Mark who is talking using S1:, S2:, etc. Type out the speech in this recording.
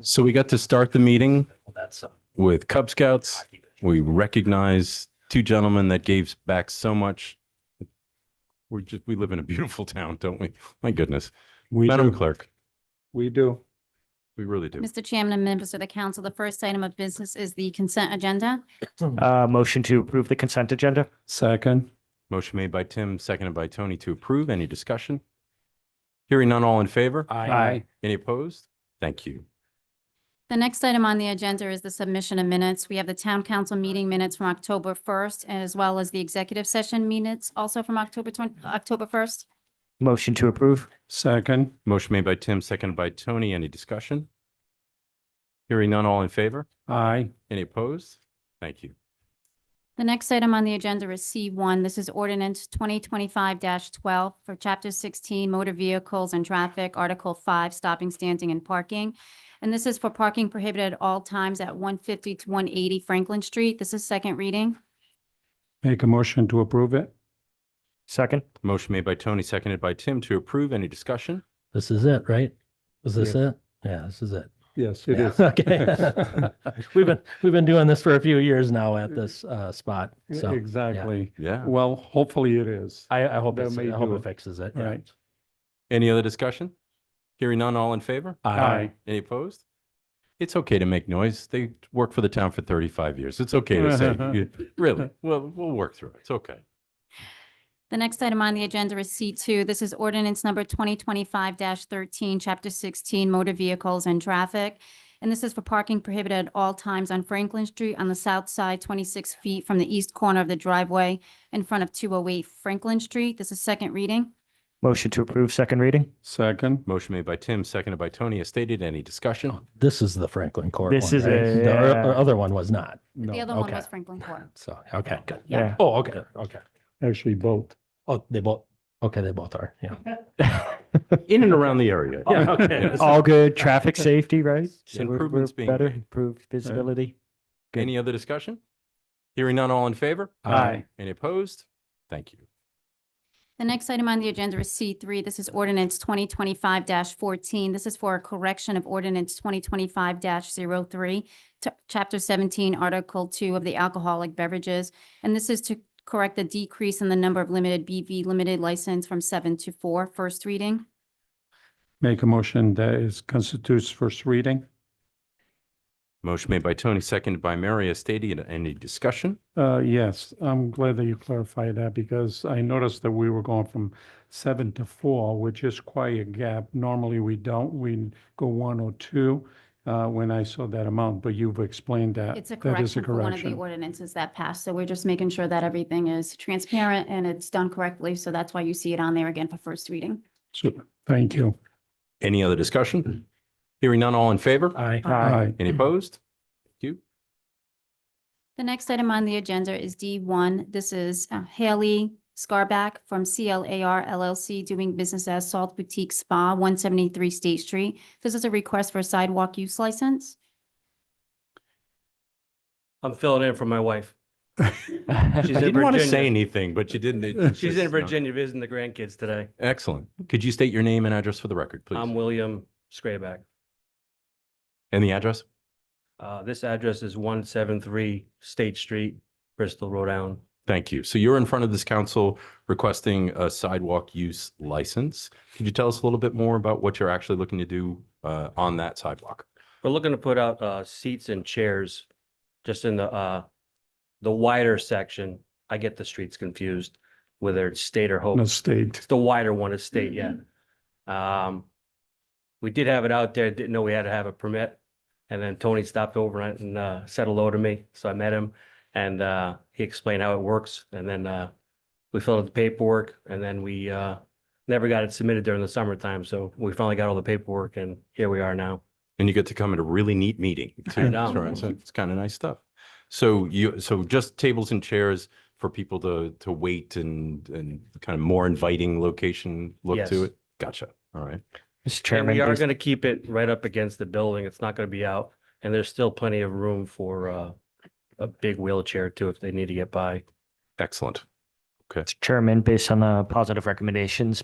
S1: So we got to start the meeting
S2: That's uh,
S1: with Cub Scouts. We recognize two gentlemen that gave back so much. We're just, we live in a beautiful town, don't we? My goodness.
S3: We
S1: Madam
S3: do,
S1: Clerk,
S3: we do.
S1: we really do.
S4: Mr. Chairman and members of the council, the first item of business is the consent agenda.
S2: uh, motion to approve the consent agenda.
S3: Second,
S1: Motion made by Tim, seconded by Tony to approve. Any discussion? Hearing none, all in favor?
S2: Aye.
S1: Any opposed? Thank you.
S4: The next item on the agenda is the submission of minutes. We have the town council meeting minutes from October 1st, as well as the executive session minutes also from October 20, October 1st.
S2: Motion to approve.
S3: second,
S1: Motion made by Tim, seconded by Tony. Any discussion? Hearing none, all in favor?
S3: aye,
S1: Any opposed? Thank you.
S4: The next item on the agenda is C1. This is ordinance 2025-12 for Chapter 16 Motor Vehicles and Traffic, Article 5, Stopping, Standing, and Parking. And this is for parking prohibited at all times at 150 to 180 Franklin Street. This is second reading.
S3: make a motion to approve it.
S2: Second.
S1: Motion made by Tony, seconded by Tim to approve. Any discussion?
S5: This is it, right? Is this it? Yeah, this is it.
S3: Yes, it
S5: Yeah,
S3: is.
S5: Okay. We've been, we've been doing this for a few years now at this uh, spot. So
S3: Exactly.
S1: Yeah.
S3: Well, hopefully it is.
S5: I, I hope
S3: That
S5: it's, I
S3: may
S5: hope
S3: do
S5: it
S3: it.
S5: fixes it. yeah.
S3: Right.
S1: Any other discussion? Hearing none, all in favor?
S3: Aye.
S1: Any opposed? It's okay to make noise. They worked for the town for 35 years. It's okay to say, you- really, well, we'll work through it. It's okay.
S4: The next item on the agenda is C2. This is ordinance number 2025-13, Chapter 16, Motor Vehicles and Traffic. And this is for parking prohibited at all times on Franklin Street on the south side, 26 feet from the east corner of the driveway in front of 208 Franklin Street. This is second reading.
S2: Motion to approve second reading.
S3: Second,
S1: Motion made by Tim, seconded by Tony. As stated, any discussion?
S5: This is the Franklin Court.
S2: This
S5: one,
S2: is
S5: right?
S2: a-
S5: The o-
S2: yeah.
S5: other one was not.
S4: The
S3: no,
S4: other one
S5: okay.
S4: was Franklin Court.
S5: So, okay, good.
S2: Yeah.
S5: Oh, okay, okay.
S3: actually both.
S5: Oh, they both, okay, they both are, yeah.
S1: In and around the area.
S5: Yeah, okay.
S2: All good. Traffic safety, right?
S1: So we're- we're Improvements being better,
S2: Better,
S1: made.
S2: improved visibility. good.
S1: Any other discussion? Hearing none, all in favor?
S2: Aye.
S1: Any opposed? Thank you.
S4: The next item on the agenda is C3. This is ordinance 2025-14. This is for a correction of ordinance 2025-03 to Chapter 17, Article 2 of the alcoholic beverages. And this is to correct the decrease in the number of limited BV limited license from seven to four. First reading.
S3: Make a motion that is constitutes first reading.
S1: Motion made by Tony, seconded by Mary. As stated, any discussion?
S3: Uh, yes, I'm glad that you clarified that because I noticed that we were going from seven to four, which is quite a gap. Normally, we don't, we go one or two, uh, when I saw that amount, but you've explained that.
S4: It's a
S3: Uh, That is a
S4: correction for one of the
S3: correction.
S4: ordinances that passed. So we're just making sure that everything is transparent and it's done correctly. So that's why you see it on there again for first reading.
S3: Super. Thank you.
S1: Any other discussion? Hearing none, all in favor?
S5: Aye.
S3: Aye.
S1: Any opposed? Thank you.
S4: The next item on the agenda is D1. This is uh, Haley Scarback from CLAR LLC doing business as Salt Boutique Spa, 173 State Street. This is a request for a sidewalk use license.
S6: I'm filling in for my wife.
S1: I
S6: She's in
S1: didn't want to say
S6: Virginia.
S1: anything, but you didn't. it-
S6: She's
S1: it's
S6: in
S1: not-
S6: Virginia visiting the grandkids today.
S1: Excellent. Could you state your name and address for the record,
S6: I'm
S1: please?
S6: William Scrayback.
S1: And the address?
S6: Uh, this address is one seven three State Street, Bristol, Rhode Island.
S1: Thank you. So you're in front of this council requesting a sidewalk use license. Could you tell us a little bit more about what you're actually looking to do uh, on that sidewalk?
S6: We're looking to put out, uh, seats and chairs just in the, uh, the wider section. I get the streets confused, whether it's state or Hope.
S3: No state.
S6: It's the wider one is state, yeah. Um, we did have it out there, didn't know we had to have a permit. And then Tony stopped over and, uh, said hello to me, so I met him and, uh, he explained how it works. And then, uh, we filled out the paperwork and then we, uh, never got it submitted during the summertime, so we finally got all the paperwork and here we are now.
S1: And you get to come at a really neat meeting. too.
S6: I know.
S1: Sure, So it's kind of nice stuff. So you, so just tables and chairs for people to, to wait and, and kind of more inviting location look
S6: Yes.
S1: to it? Gotcha. All right.
S2: Mr.
S6: And
S2: Chairman.
S6: we are
S2: is-
S6: going to keep it right up against the building. It's not going to be out. And there's still plenty of room for, uh, a big wheelchair too, if they need to get by.
S1: Excellent.
S2: Mr. Chairman, based on the positive recommendations